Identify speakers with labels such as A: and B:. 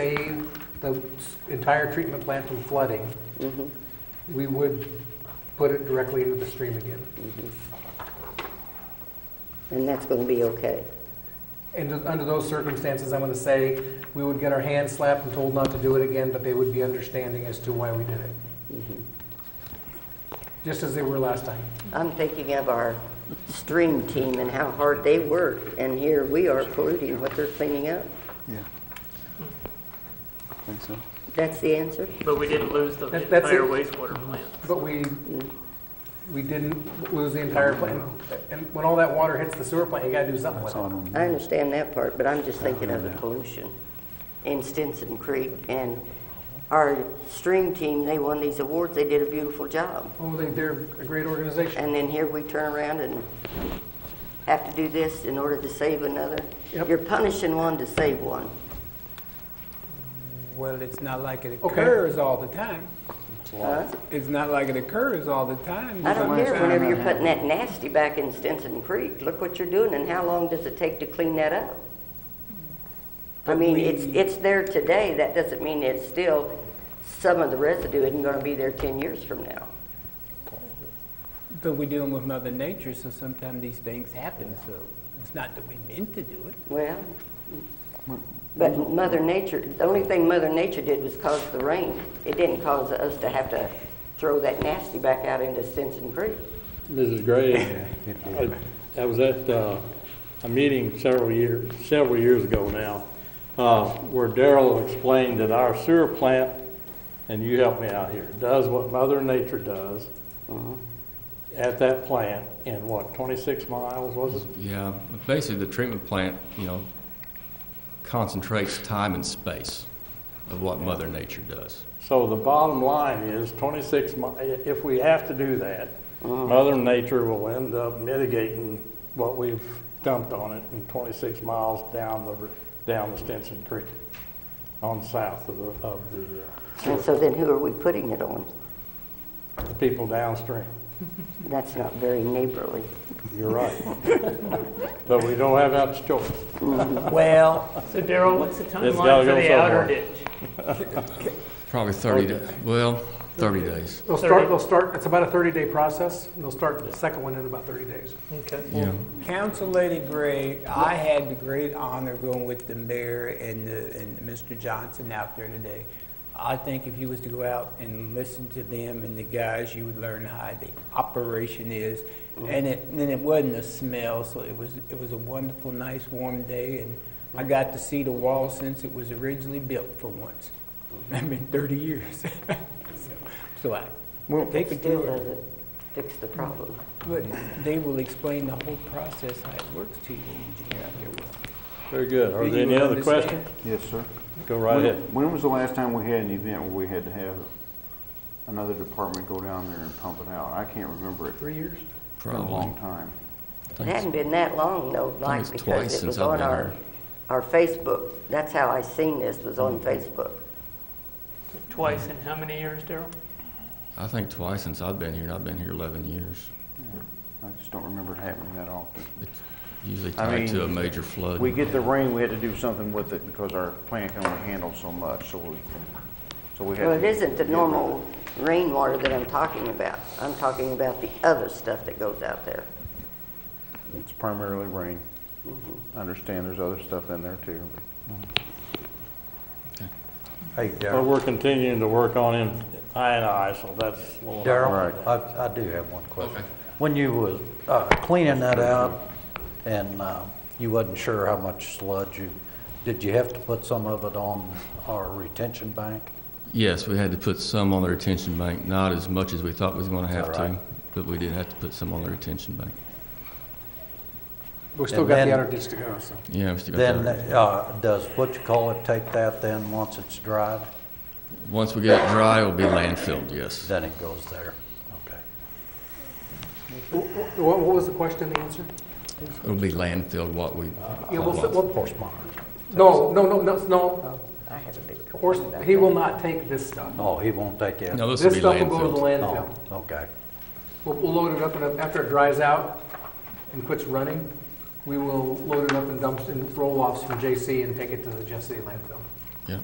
A: save the s- entire treatment plant from flooding, we would put it directly into the stream again.
B: And that's going to be okay.
A: And under those circumstances, I'm going to say, we would get our hands slapped and told not to do it again, but they would be understanding as to why we did it. Just as they were last time.
B: I'm thinking of our stream team and how hard they work, and here we are polluting what they're cleaning up.
C: Yeah. Think so?
B: That's the answer?
D: But we didn't lose the
A: That- that's
D: entire
A: it.
D: wastewater plant.
A: But we, we didn't lose the entire plant. And when all that water hits the sewer plant, you got to do something with
C: That's
A: it.
C: on
B: I understand that part, but I'm just thinking of the pollution in Stinson Creek. And our stream team, they won these awards, they did a beautiful job.
A: Oh, they, they're a great organization.
B: And then here we turn around and have to do this in order to save another.
A: Yep.
B: You're punishing one to save one.
E: Well, it's not like it
A: Okay.
E: occurs all the time.
B: huh?
E: It's not like it occurs all the time.
B: I don't care
E: Sometimes-
B: whenever you're putting that nasty back in Stinson Creek. Look what you're doing and how long does it take to clean that up? I
E: But
B: mean,
E: we-
B: it's, it's there today. That doesn't mean it's still, some of the residue isn't gonna be there ten years from now.
E: But we're dealing with Mother Nature, so sometimes these things happen, so it's not that we meant to do it.
B: Well, but Mother Nature, the only thing Mother Nature did was cause the rain. It didn't cause us to have to throw that nasty back out into Stinson Creek.
F: Mrs. Gray, I- I was at uh, a meeting several years, several years ago now, uh, where Daryl explained that our sewer plant, and you help me out here, does what Mother Nature does at that plant in what, 26 miles, was it?
G: Yeah, basically, the treatment plant, you know, concentrates time and space of what Mother Nature does.
F: So the bottom line is 26, mi- if we have to do that, Mother Nature will end up mitigating what we've dumped on it in 26 miles down the, r- down the Stinson Creek on south of the, of the, uh,
B: And so then who are we putting it on?
F: the people downstream.
B: That's not very neighborly.
F: You're right. But we don't have that choice.
E: Well.
D: So Daryl, what's the
F: gotta
D: timeline
F: go
D: for the
F: somewhere.
D: outer ditch?
G: Probably 30, da- well, 30 days.
A: They'll start, they'll start, it's about a 30-day process, and they'll start the second one in about 30 days.
D: Okay.
G: Yeah,
E: Council Lady Gray, I had the great honor going with the mayor and, the- and Mr. Johnson out there today. I think if you was to go out and listen to them and the guys, you would learn how the operation is. And it, and it wasn't a smell, so it was, it was a wonderful, nice, warm day. And I got to see the wall since it was originally built for once. I mean, thirty years. So- So I, take a
B: Still
E: tour.
B: doesn't fix the problem.
E: But they will explain the whole process, how it works to you, engineer out there. Will.
F: Very good. Are
E: Do
F: there
E: you
F: any other
E: understand?
F: questions?
C: Yes, sir.
F: Go right ahead.
C: When when was the last time we had an event where we had to have another department go down there and pump it out? I can't remember it. It's
A: Three years?
C: been a
G: probably.
C: long time.
B: It hadn't been that long though,
G: it's
B: like,
G: twice
B: because it
G: since
B: was
G: I've
B: on
G: been
B: our,
G: here.
B: our Facebook. That's how I seen this, was on Facebook.
D: Twice in how many years, Daryl?
G: I think twice since I've been here, and I've been here 11 years.
C: I just don't remember it happening that often.
G: It's usually
C: I
G: tied to a
C: mean,
G: major flood.
C: We get the rain, we had to do something with it because our plant can only handle so much, so we, so we had.
B: Well, it
C: to-
B: isn't the normal rainwater that I'm talking about. I'm talking about the other stuff that goes out there.
C: It's primarily rain.
B: Mm-hmm.
C: I understand there's other stuff in there too.
H: Hey,
F: Well,
H: Darryl,
F: we're continuing to work on in I and I, so that's a little.
H: Darryl,
C: Right.
H: I, I do have one question.
G: Okay.
H: When you was uh, cleaning that out and uh, you wasn't sure how much sludge you, did you have to put some of it on our retention bank?
G: Yes, we had to put some on the retention bank, not as much as we thought we was going to have to,
H: right?
G: but we did have to put some on the retention bank.
A: We've still
H: And
A: got the
H: then-
A: outer ditch to go, so.
G: Yeah, we still got
H: Then,
G: that.
H: uh, does what you call it take that then, once it's dried?
G: Once we get it dry, it'll be landfilled, yes.
H: Then it goes there? Okay.
A: Wh- wh- What, what was the question, the answer?
G: It'll be landfilled what we,
A: Yeah, we'll, s- we'll-
H: Horse monitor.
A: no, no, no, no, no,
B: Oh, I have a big
A: horse,
B: question about
A: he
B: that.
A: will not take this stuff.
H: Oh, he won't take it?
G: no, this will
A: This
G: be
A: stuff will go to the
G: landfilled.
H: Oh,
A: landfill.
H: okay.
A: We'll, we'll load it up, and after it dries out and quits running, we will load it up in dumps and roll-offs from JC and take it to the Jeff City landfill.
G: Yeah.